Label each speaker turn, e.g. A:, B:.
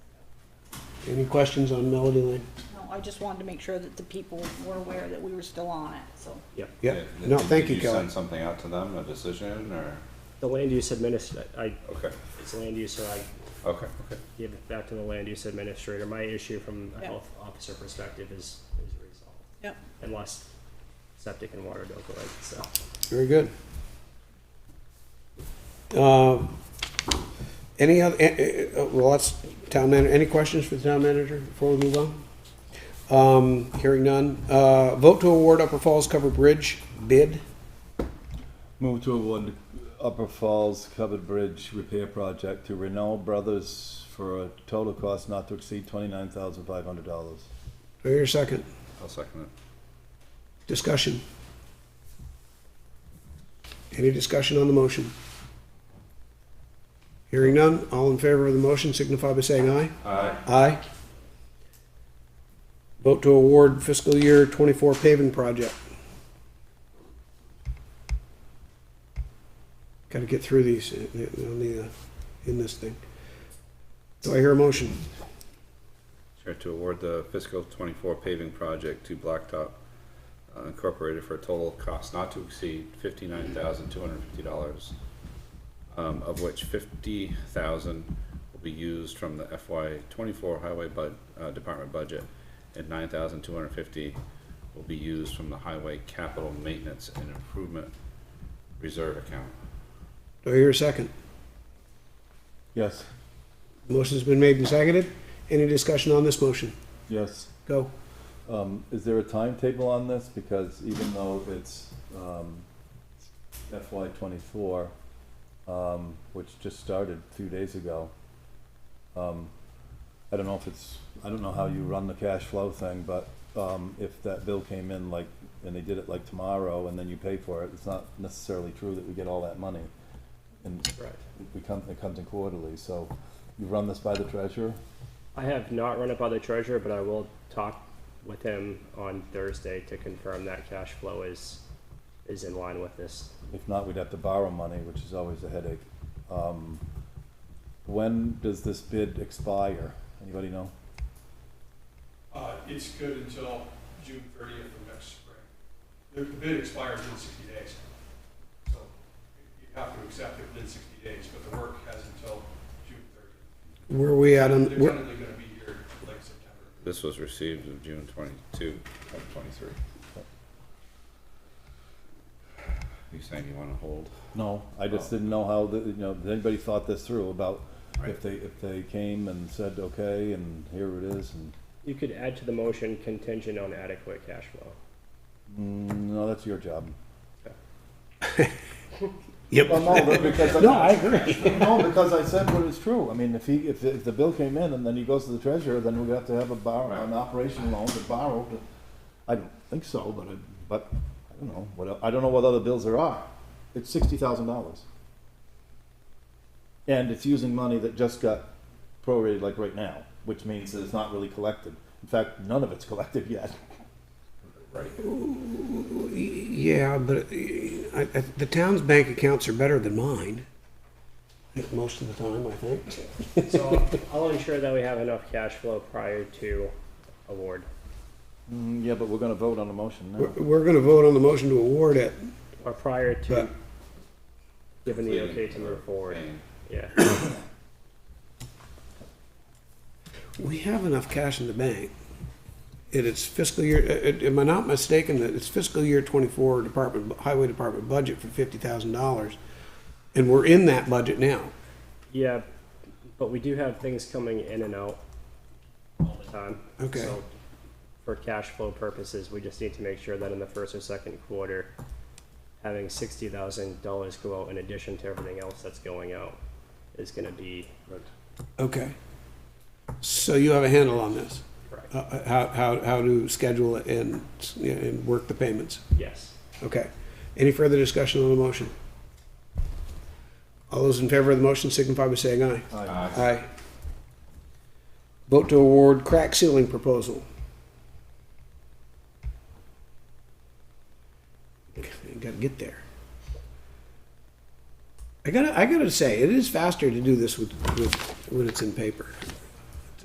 A: Any questions on Melody Lane?
B: No, I just wanted to make sure that the people were aware that we were still on it, so.
C: Yep.
A: Yep,
D: Did-
A: no,
D: did-
A: thank you,
D: Did you
A: Kelly.
D: send something out to them, a decision, or,
C: The land use administrator, I,
D: okay,
C: it's land use, so I
D: okay, okay.
C: give it back to the land use administrator. My issue from a
B: Yeah.
C: health officer perspective is, is resolved.
B: Yep.
C: Unless septic and water don't go in, so.
A: Very good. Uh, Any other, eh, eh, eh, well, that's town manager, any questions for the town manager before we move on? Um, Hearing none. Uh, Vote to award Upper Falls Cover Bridge bid.
E: Move to award Upper Falls Covered Bridge Repair Project to Renault Brothers for a total cost not to exceed twenty-nine thousand five hundred dollars.
A: Do I hear a second?
D: I'll second it.
A: Discussion. Any discussion on the motion? Hearing none. All in favor of the motion signify by saying aye.
D: Aye.
A: Aye. Vote to award fiscal year twenty-four paving project. Gotta get through these uh, on the, uh, in this thing. Do I hear a motion?
D: Chair to award the fiscal twenty-four paving project to Blacktop uh, Incorporated for a total cost not to exceed fifty-nine thousand two hundred and fifty dollars. Um, of which fifty thousand will be used from the FY twenty-four highway bud, uh, department budget. And nine thousand two hundred and fifty will be used from the highway capital maintenance and improvement reserve account.
A: Do I hear a second?
E: Yes,
A: Motion's been made and seconded. Any discussion on this motion?
E: yes.
A: Go.
E: Um, is there a timetable on this? Because even though it's, um, FY twenty-four, um, which just started two days ago, um, I don't know if it's, I don't know how you run the cash flow thing, but, um, if that bill came in like, and they did it like tomorrow and then you pay for it, it's not necessarily true that we get all that money. And
C: Right.
E: we come, it comes in quarterly, so you run this by the treasurer?
C: I have not run it by the treasurer, but I will talk with him on Thursday to confirm that cash flow is, is in line with this.
E: If not, we'd have to borrow money, which is always a headache. Um, When does this bid expire? Anybody know?
F: Uh, it's good until June thirtieth of next spring. The the bid expires in sixty days. So you have to accept it within sixty days, but the work has until June thirtieth.
A: Where are we at on,
F: They're
A: where-
F: tentatively gonna be here late September.
D: This was received of June twenty-two of twenty-three. You saying you wanna hold?
E: No. I just didn't know how, the- you know, did anybody thought this through about if they, if they came and said, okay, and here it is, and,
C: You could add to the motion contingent on adequate cash flow.
E: mm, no, that's your job.
A: Yep.
E: Well, no, but because.
A: No, I agree.
E: No, because I said what is true. I mean, if he, if, if the bill came in and then he goes to the treasurer, then we're gonna have to have a borrow, an operation loan to borrow. to- I don't think so, but I, but, I don't know, what, el- I don't know what other bills there are. It's sixty thousand dollars. And it's using money that just got prorated like right now, which means that it's not really collected. In fact, none of it's collected yet.
A: Yeah, but I, I, the town's bank accounts are better than mine. Most of the time, I think.
C: So I'll ensure that we have enough cash flow prior to award.
E: Mm, yeah, but we're gonna vote on the motion
A: We're,
E: now.
A: we're gonna vote on the motion to award it,
C: Or prior to
A: but,
C: giving the okay to move forward,
D: Paying.
C: yeah.
A: we have enough cash in the bank. It is fiscal year, uh, uh, am I not mistaken that it's fiscal year twenty-four department, highway department budget for fifty thousand dollars? And we're in that budget now.
C: Yeah, but we do have things coming in and out all the time.
A: Okay.
C: So For cash flow purposes, we just need to make sure that in the first or second quarter, having sixty thousand dollars go out in addition to everything else that's going out is gonna be
A: Okay. So you have a handle on this,
C: correct.
A: uh, uh, how, how, how to schedule it and, and work the payments?
C: Yes.
A: Okay. Any further discussion on the motion? All those in favor of the motion signify by saying aye.
E: Aye.
A: Aye. Vote to award crack ceiling proposal. Gotta get there. I gotta, I gotta say, it is faster to do this with, with, when it's in paper.